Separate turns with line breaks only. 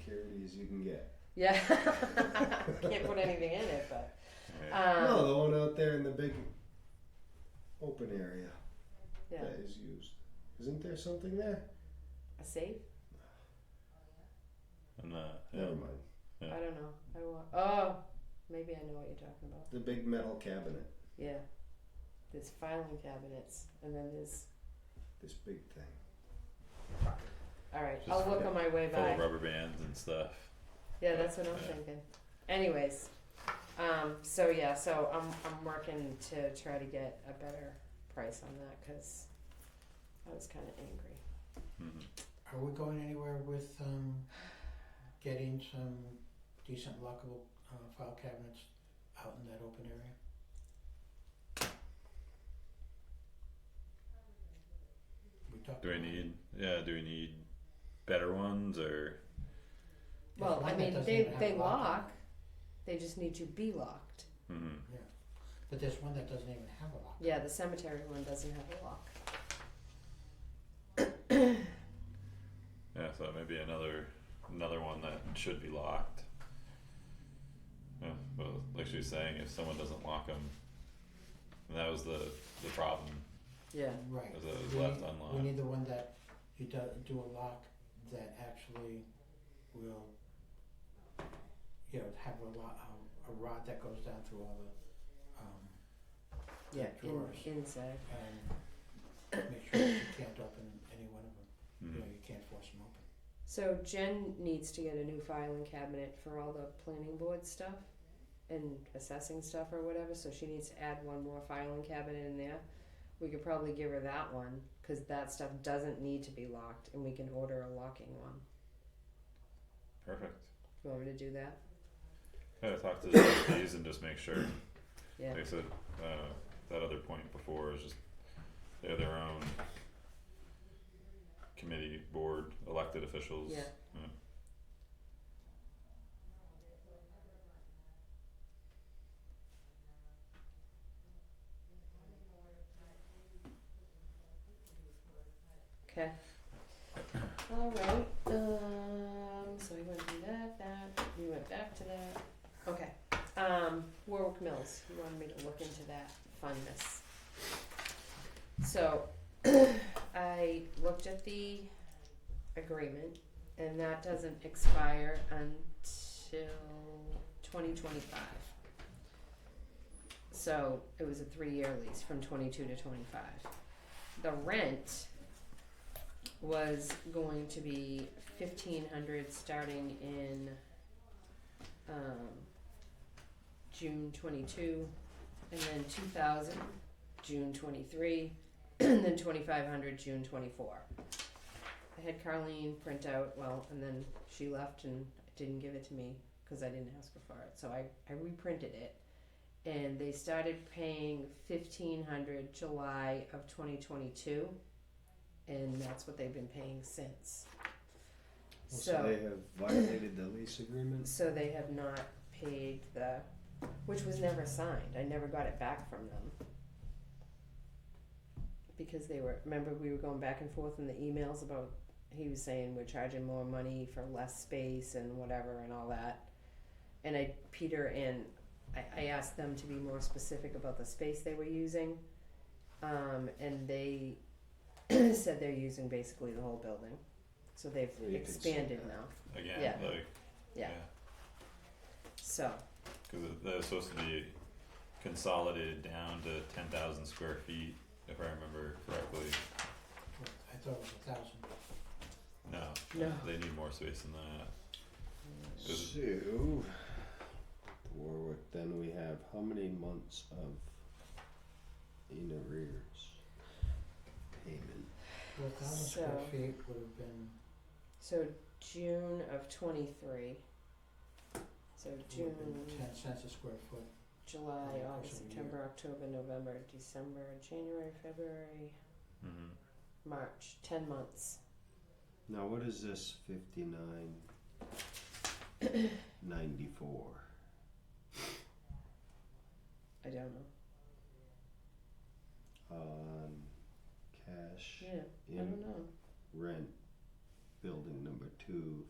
dirty as you can get.
Yeah. Can't put anything in it, but.
Yeah.
Um,
no, the one out there in the big open area
Yeah.
that is used. Isn't there something there?
A safe?
And, uh, yeah.
Never mind.
Yeah.
I don't know. I wa- oh, maybe I know what you're talking about.
The big metal cabinet.
Yeah. There's filing cabinets, and then there's.
This big thing.
All right,
Just
I'll look on my way
full
by.
of rubber bands and stuff.
Yeah, that's what I'm
Yeah.
thinking. Anyways, um, so yeah, so I'm I'm working to try to get a better price on that because I was kind of angry.
hmm
Are we going anywhere with um getting some decent lockable uh file cabinets out in that open area? We talked
Do we
about-
need? Yeah. Do we need better ones or?
There's
Well,
one
I
that
mean,
doesn't
they
even have
they
a on
lock.
it,
They just need to be locked.
hmm
But there's one that doesn't even have a lock.
Yeah, the cemetery one doesn't have a lock.
Yeah. So maybe another another one that should be locked. Yeah. Well, like she was saying, if someone doesn't lock them, and that was the the problem.
Yeah.
Right.
Is it
We
left
need-
unlocked?
We need the one that you do, do a lock that actually will, you know, have a lot, a rod that goes down through all the, um,
Yeah. In,
Drawers.
inside.
and make sure that you can't open any one of them, you
Mhm.
know, you can't force them open.
So Jen needs to get a new filing cabinet for all the planning board stuff and assessing stuff or whatever. So she needs to add one more filing cabinet in there. We could probably give her that one because that stuff doesn't need to be locked, and we can order a locking one.
Perfect.
You want me to do that?
Yeah. Talk to the trustees and just make sure.
Yeah.
Like I said, uh, that other point before is just they're their own committee, board, elected officials.
Yeah. Okay. All right. Um, so we went through that, that. We went back to that. Okay. Um, Warwick Mills. You wanted me to look into that fundness. So I looked at the agreement, and that doesn't expire until 2025. So it was a three-year lease from 22 to 25. The rent was going to be 1500 starting in um, June 22 and then 2000 June 23 and then 2500 June 24. I had Carleen print out, well, and then she left and didn't give it to me because I didn't ask her for it. So I, I reprinted it. And they started paying 1500 July of 2022. And that's what they've been paying since.
Well, so they have violated the lease agreement.
So they have not paid the, which was never signed, I never got it back from them. Because they were, remember we were going back and forth in the emails about, he was saying we're charging more money for less space and whatever and all that. And I, Peter and, I, I asked them to be more specific about the space they were using. Um, and they said they're using basically the whole building, so they've
Well, you could say
expanded
that.
now,
Again,
Yeah.
like,
Yeah. so.
Cause it- they're supposed to be consolidated down to ten thousand square feet, if I remember correctly.
Well, I thought it was a thousand.
No.
No.
They need more space than that.
Hmm.
Is
So, with Warwick, then we have how many months of in arrears payment?
Well, a thousand square
So-
feet would have been,
So June of twenty-three. So
would
June,
have been ten cents a square foot.
July,
Yeah,
August,
actually,
September, October, November, December, January, February,
Mhm.
March, ten months.
Now, what is this 5994?
I don't know.
on cash
Yeah, I
in
don't know.
rent building number two